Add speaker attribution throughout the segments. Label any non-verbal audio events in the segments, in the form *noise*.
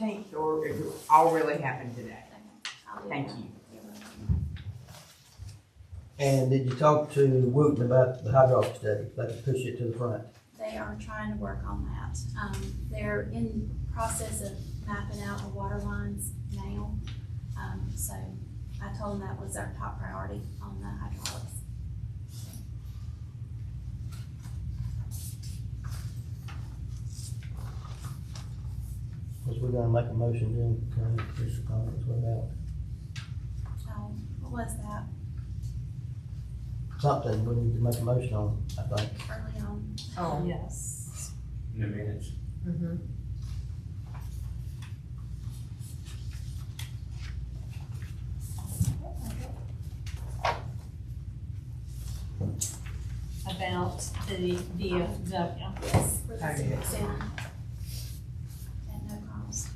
Speaker 1: think, or it all really happened today.
Speaker 2: I'll do
Speaker 1: Thank
Speaker 2: that.
Speaker 1: you.
Speaker 3: And did you talk to Wooten about the hydraulic study, like push it to the front?
Speaker 2: They are trying to work on that. Um, they're in process of mapping out the water lines now. Um, so I told them that was our top priority on the hydraulics.
Speaker 3: Cause we're gonna make a motion then, kind of push the comments without
Speaker 2: Um, what was that
Speaker 3: something, we need to make a motion on, I think.
Speaker 2: early on?
Speaker 4: Oh, yes.
Speaker 5: in the minutes.
Speaker 4: Mhm. About the uh, VFW.
Speaker 2: Yes. For
Speaker 1: Oh,
Speaker 2: the
Speaker 1: yeah.
Speaker 2: civic center. And no cost.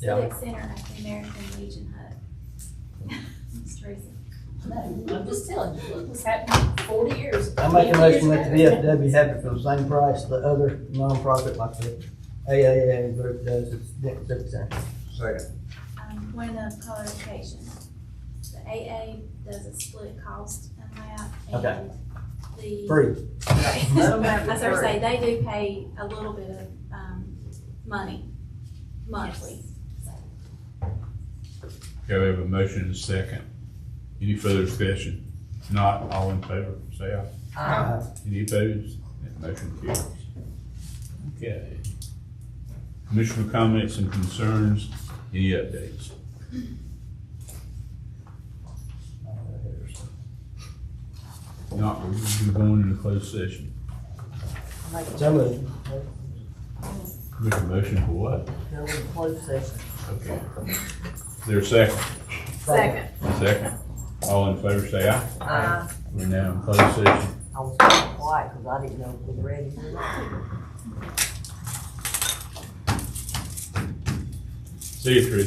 Speaker 3: Yeah.
Speaker 2: Civic center at the American Legion Hut. *laughs* It's Teresa.
Speaker 4: No, I'm just telling you, look what's happened forty years.
Speaker 3: I make a
Speaker 4: 50
Speaker 3: motion
Speaker 4: years
Speaker 3: that the
Speaker 4: later.
Speaker 3: VFW have it for the same price the other nonprofit like the AAA group does, it's, it's, it's,
Speaker 5: Second.
Speaker 2: um, point of clarification. The AA does a split cost amount
Speaker 3: Okay.
Speaker 2: and the.
Speaker 3: free.
Speaker 1: Let 'em have it
Speaker 2: As *laughs* I was
Speaker 1: free.
Speaker 2: saying, they do pay a little bit of, um, money monthly.
Speaker 6: Okay, we have a motion and a second. Any further discussion? If Not all in favor, say aye.
Speaker 3: Uh,
Speaker 6: Any opposed? That motion carries. Okay. Commissioner comments and concerns, any updates? Not, we're going into closed session.
Speaker 3: So moved.
Speaker 6: Commissioner motion for what?
Speaker 4: Go in closed session.
Speaker 6: Okay. Is there a second?
Speaker 4: Second.
Speaker 6: Second. All in favor, say aye.
Speaker 4: Uh,
Speaker 6: We're now in closed session.
Speaker 4: I was quiet because I didn't know if we were ready.
Speaker 6: See you, Chris.